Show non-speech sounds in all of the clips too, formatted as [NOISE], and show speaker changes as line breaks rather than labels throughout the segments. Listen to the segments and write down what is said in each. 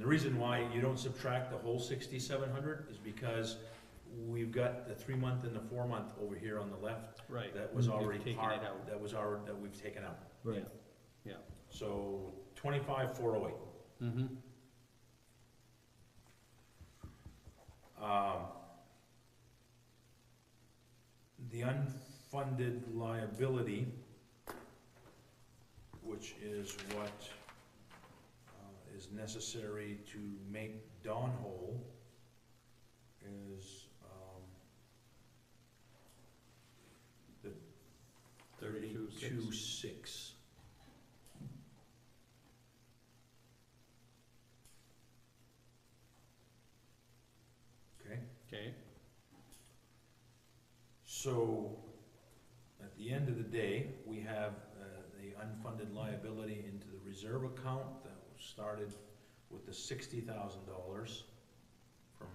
reason why you don't subtract the whole sixty-seven hundred is because we've got the three-month and the four-month over here on the left
Right.
that was
You've
already
taken it
part,
out.
that was our, that we've taken out.
Right. Yeah.
So twenty-five, four oh eight.
Mm-hmm.
Um, The unfunded liability, which is what uh, is necessary to make Dawn whole, is um, the
Thirty-two, six.
thirty-two, six. Okay?
Okay,
So, at the end of the day, we have uh, the unfunded liability into the reserve account that was started with the sixty thousand dollars from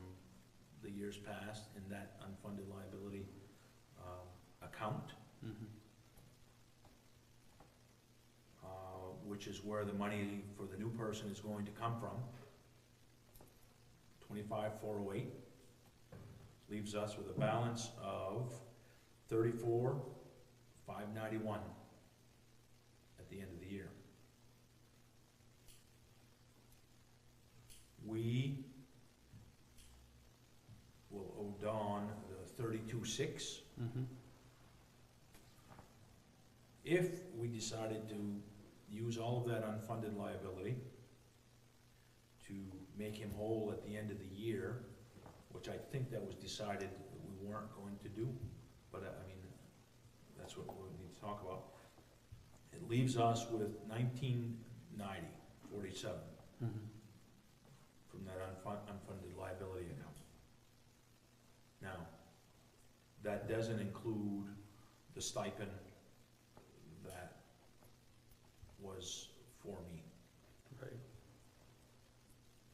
the years past in that unfunded liability um, account,
mm-hmm,
uh, which is where the money for the new person is going to come from. Twenty-five, four oh eight. Leaves us with a balance of thirty-four, five ninety-one at the end of the year. We will owe Dawn the thirty-two, six
mm-hmm,
if we decided to use all of that unfunded liability to make him whole at the end of the year, which I think that was decided that we weren't going to do, but uh, I I mean, that's what we need to talk about. It leaves us with nineteen ninety, forty-seven
mm-hmm,
from that unfun- unfunded liability account. Now, that doesn't include the stipend that was for me
right,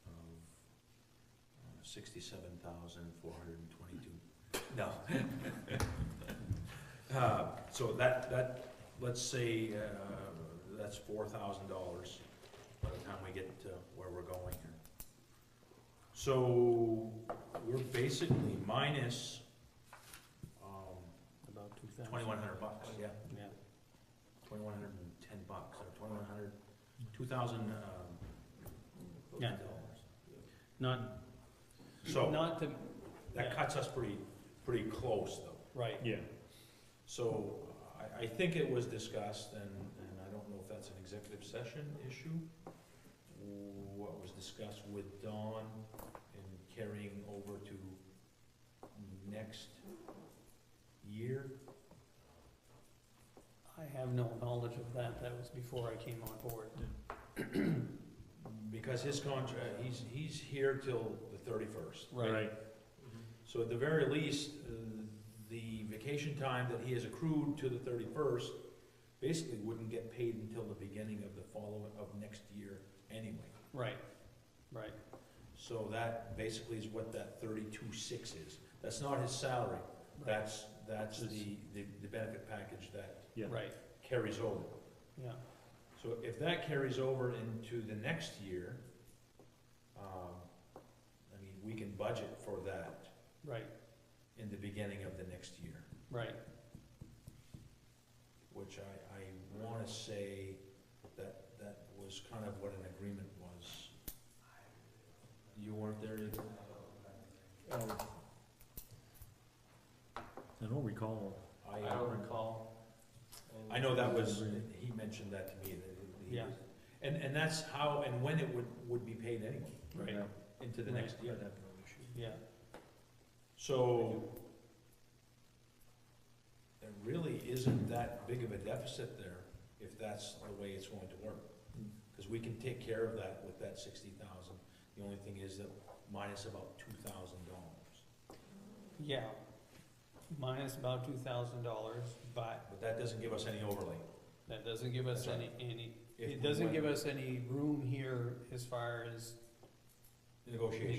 of uh, sixty-seven thousand, four hundred and twenty-two. No. [LAUGHS] Uh, So that, that, let's say, uh, that's four thousand dollars by the time we get to where we're going here. So we're basically minus
about two thousand.
twenty-one hundred bucks, oh, yeah,
Yeah,
twenty-one hundred and ten bucks, or twenty-one hundred, two thousand um,
Yeah.
dollars.
not,
So.
not to,
That cuts us pretty, pretty close though.
right,
Yeah,
So I, I think it was discussed and, and I don't know if that's an executive session issue. What was discussed with Dawn and carrying over to next year?
I have no knowledge of that, that was before I came on board.
Because his contract, he's, he's here till the thirty-first.
right,
So at the very least, uh, the vacation time that he has accrued to the thirty-first basically wouldn't get paid until the beginning of the following, of next year anyway.
Right, right,
So that basically is what that thirty-two six is. That's not his salary. That's, that's the, the the benefit package that
yeah.
right,
carries over.
yeah,
So if that carries over into the next year, um, I mean, we can budget for that
right,
in the beginning of the next year.
right,
which I, I wanna say that, that was kind of what an agreement was. You weren't there either?
I don't recall.
I,
I don't recall.
I know that was, he mentioned that to me, that he
Yeah.
was, and, and that's how and when it would, would be paid anyway,
Right.
Yeah.
into the
Right.
next year.
yeah,
So, there really isn't that big of a deficit there, if that's the way it's going to work.
Hmm.
Cause we can take care of that with that sixty thousand, the only thing is that minus about two thousand dollars.
yeah, minus about two thousand dollars, but
But that doesn't give us any overlay.
that doesn't give us
That's
any,
right.
any,
if we
it doesn't
went
give us any room here as far as
Negotiation.